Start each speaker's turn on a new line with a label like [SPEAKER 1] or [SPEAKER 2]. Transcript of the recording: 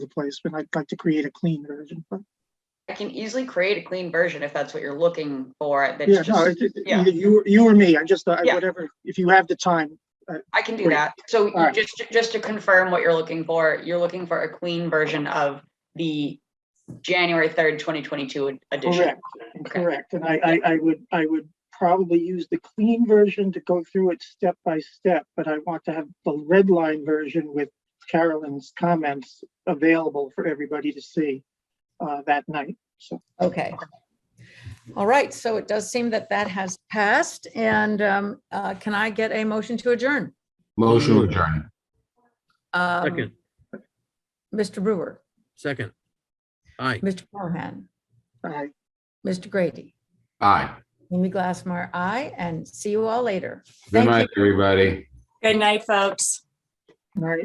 [SPEAKER 1] the place, but I'd like to create a clean version. But
[SPEAKER 2] I can easily create a clean version if that's what you're looking for.
[SPEAKER 1] Yeah,
[SPEAKER 2] That's
[SPEAKER 1] no,
[SPEAKER 2] just,
[SPEAKER 1] it- it-
[SPEAKER 2] yeah.
[SPEAKER 1] either you, you or me, I just, uh,
[SPEAKER 2] Yeah.
[SPEAKER 1] whatever, if you have the time,
[SPEAKER 2] I can do
[SPEAKER 1] great.
[SPEAKER 2] that. So you
[SPEAKER 1] right.
[SPEAKER 2] just, just to confirm what you're looking for, you're looking for a clean version of the January third, twenty twenty-two edition.
[SPEAKER 1] correct, correct. And I, I, I would, I would probably use the clean version to go through it step by step, but I want to have the red line version with Carolyn's comments available for everybody to see uh, that night, so.
[SPEAKER 3] Okay. All right, so it does seem that that has passed, and um, uh, can I get a motion to adjourn?
[SPEAKER 4] Motion to adjourn.
[SPEAKER 3] Um,
[SPEAKER 5] Second,
[SPEAKER 3] Mr. Brewer,
[SPEAKER 5] second. Aye.
[SPEAKER 3] Mr. Mohan,
[SPEAKER 1] I
[SPEAKER 3] Mr. Grady,
[SPEAKER 4] Aye.
[SPEAKER 3] Amy Glassmar, I, and see you all later.
[SPEAKER 4] Good
[SPEAKER 3] Thank you.
[SPEAKER 4] night, everybody.
[SPEAKER 6] Good night, folks.
[SPEAKER 1] I-